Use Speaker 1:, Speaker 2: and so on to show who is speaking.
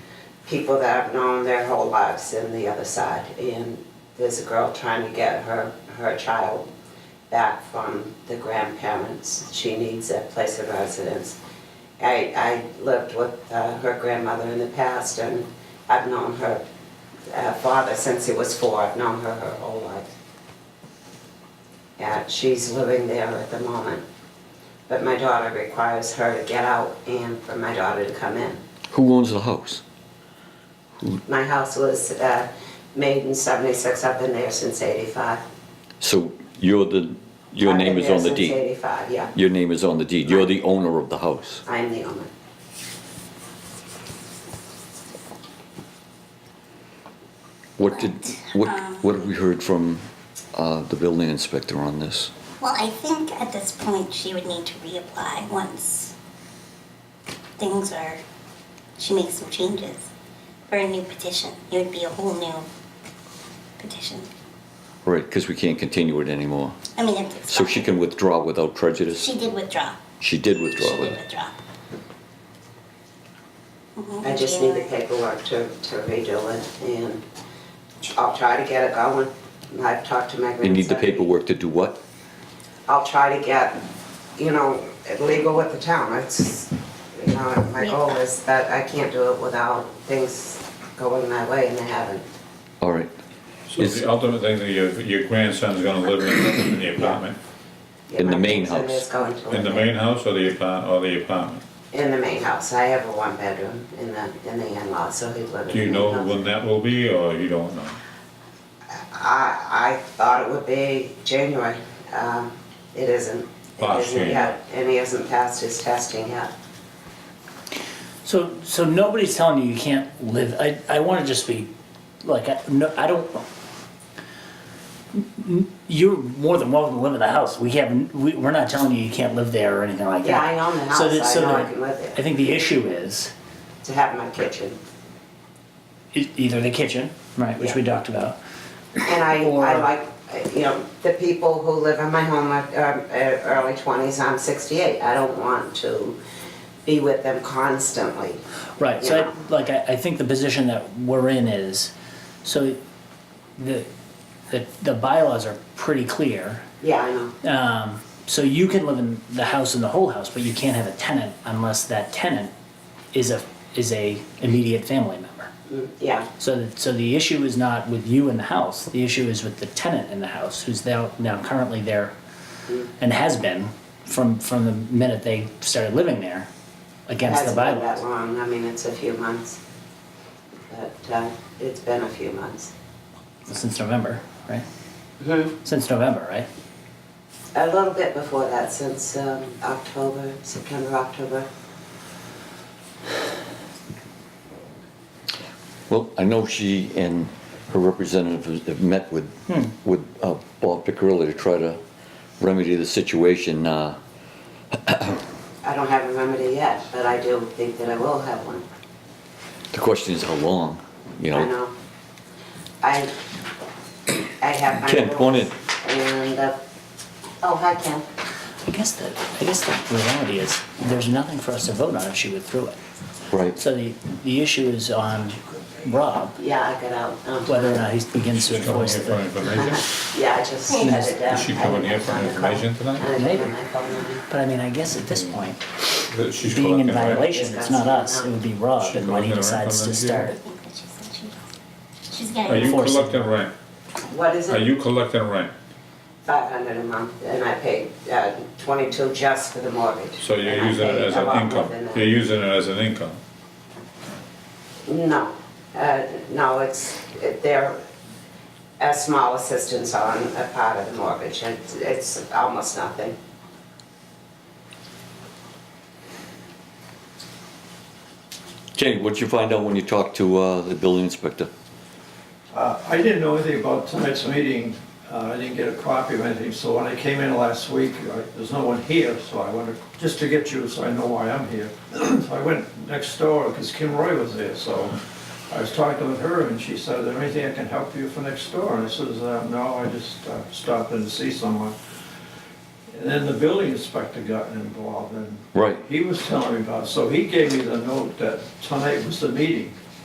Speaker 1: people that I've known their whole lives in the other side. And there's a girl trying to get her, her child back from the grandparents. She needs a place of residence. I, I lived with uh, her grandmother in the past and I've known her uh, father since he was four. I've known her her whole life. Yeah, she's living there at the moment. But my daughter requires her to get out and for my daughter to come in.
Speaker 2: Who owns the house?
Speaker 1: My house was uh, made in '76, I've been there since '85.
Speaker 2: So you're the, your name is on the
Speaker 1: I've been there
Speaker 2: deed.
Speaker 1: since '85, yeah,
Speaker 2: Your name is on the deed. You're the owner of the house.
Speaker 1: I'm the owner.
Speaker 2: What did, what, what have we heard from uh, the building inspector on this?
Speaker 3: Well, I think at this point she would need to reapply once things are, she makes some changes for a new petition. It would be a whole new petition.
Speaker 2: Right, because we can't continue it anymore.
Speaker 3: I mean, it's
Speaker 2: So she can withdraw without prejudice?
Speaker 3: She did withdraw.
Speaker 2: She did withdraw
Speaker 3: She
Speaker 2: with
Speaker 3: did
Speaker 2: it.
Speaker 3: withdraw. Mhm,
Speaker 1: I just need the
Speaker 3: January.
Speaker 1: paperwork to to redo it, and I'll try to get it going. I've talked to my grandson.
Speaker 2: You need the paperwork to do what?
Speaker 1: I'll try to get, you know, legal with the town. It's, you know, my goal is that I can't do it without things going my way, and they haven't.
Speaker 2: All right.
Speaker 4: So
Speaker 2: Is-
Speaker 4: the ultimate thing that your, your grandson's gonna live in, in the apartment,
Speaker 2: In the main
Speaker 1: My grandson is
Speaker 2: house.
Speaker 1: going to
Speaker 4: in the
Speaker 1: live
Speaker 4: main house or the apart, or the apartment?
Speaker 1: In the main house, I have a one bedroom in the, in the in-law, so he'd live in the
Speaker 4: Do you
Speaker 1: main
Speaker 4: know
Speaker 1: house.
Speaker 4: when that will be, or you don't know?
Speaker 1: I, I thought it would be January, um, it isn't. It
Speaker 4: Last
Speaker 1: isn't
Speaker 4: January.
Speaker 1: yet, and he hasn't passed his testing yet.
Speaker 5: So, so nobody's telling you you can't live. I, I want to just be, like, I, no, I don't. You're more than welcome to live in the house. We haven't. We, we're not telling you you can't live there or anything like
Speaker 1: Yeah,
Speaker 5: that.
Speaker 1: I own the
Speaker 5: So
Speaker 1: house,
Speaker 5: that,
Speaker 1: I
Speaker 5: so
Speaker 1: know I
Speaker 5: that-
Speaker 1: can live there.
Speaker 5: I think the issue is
Speaker 1: to have my kitchen.
Speaker 5: e- either the kitchen, right, which we talked about.
Speaker 1: And I, I
Speaker 5: Or-
Speaker 1: like, uh, you know, the people who live in my home are, are are early twenties, I'm sixty-eight, I don't want to be with them constantly.
Speaker 5: Right. So,
Speaker 1: Yeah.
Speaker 5: I, like, I, I think the position that we're in is, so, the, the the bylaws are pretty clear.
Speaker 1: Yeah, I know,
Speaker 5: Um, so you can live in the house in the whole house, but you can't have a tenant unless that tenant is a is a immediate family member.
Speaker 1: Mm, yeah,
Speaker 5: So that, so the issue is not with you in the house. The issue is with the tenant in the house, who's now now currently there, and has been from from the minute they started living there,
Speaker 1: it
Speaker 5: against the
Speaker 1: hasn't been that
Speaker 5: bylaws.
Speaker 1: long, I mean, it's a few months. But, uh, it's been a few months.
Speaker 5: Since November, right? Since November, right?
Speaker 1: A little bit before that, since, um, October, September, October.
Speaker 2: Well, I know she and her representative have met with, with uh, Bob Piccarilli to try to remedy the situation. uh,
Speaker 1: I don't have a remedy yet, but I do think that I will have one.
Speaker 2: The question is how long, you
Speaker 1: I
Speaker 2: know?
Speaker 1: know. I, I have my.
Speaker 2: Ken, come on in.
Speaker 1: rules, And, uh, oh, hi, Ken.
Speaker 5: I guess the I guess the reality is there's nothing for us to vote on if she withdrew it.
Speaker 2: Right.
Speaker 5: So the, the issue is on Rob,
Speaker 1: Yeah, I got out. um,
Speaker 5: whether or not he begins to
Speaker 4: She's coming
Speaker 5: enforce
Speaker 4: here for
Speaker 5: it.
Speaker 4: information?
Speaker 1: Yeah, I just had it down.
Speaker 4: Is she coming here for information tonight?
Speaker 1: I didn't have
Speaker 5: Maybe.
Speaker 1: my phone on me.
Speaker 5: But I mean, I guess at this point,
Speaker 4: That she's
Speaker 5: being in
Speaker 4: collecting, right?
Speaker 5: violation, it's not us, it would be Rob, and when he decides to start.
Speaker 3: I think that she said she- She's
Speaker 4: Are you
Speaker 3: getting,
Speaker 5: Enforcing.
Speaker 4: collecting rent?
Speaker 1: What is
Speaker 4: Are
Speaker 1: it?
Speaker 4: you collecting rent?
Speaker 1: Five hundred a month, and I paid, uh, twenty-two just for the mortgage.
Speaker 4: So you're
Speaker 1: And I
Speaker 4: using it
Speaker 1: paid
Speaker 4: as
Speaker 1: a lot
Speaker 4: an
Speaker 1: more
Speaker 4: income?
Speaker 1: than that.
Speaker 4: You're using it as an income?
Speaker 1: No, uh, no, it's, it- they're a small assistance on a part of the mortgage, and it's- it's almost nothing.
Speaker 2: Jay, what'd you find out when you talked to uh, the building inspector?
Speaker 6: Uh, I didn't know anything about tonight's meeting. Uh, I didn't get a copy of anything, so when I came in last week, I- there's no one here, so I wanted, just to get you, so I know why I'm here. So I went next door, because Kim Roy was there, so I was talking with her, and she said, is there anything I can help you for next door? And I says, "Uh, no, I just uh, stopped in to see someone. And then the building inspector got involved, and
Speaker 2: Right.
Speaker 6: he was telling me about, it. so he gave me the note that tonight was the meeting.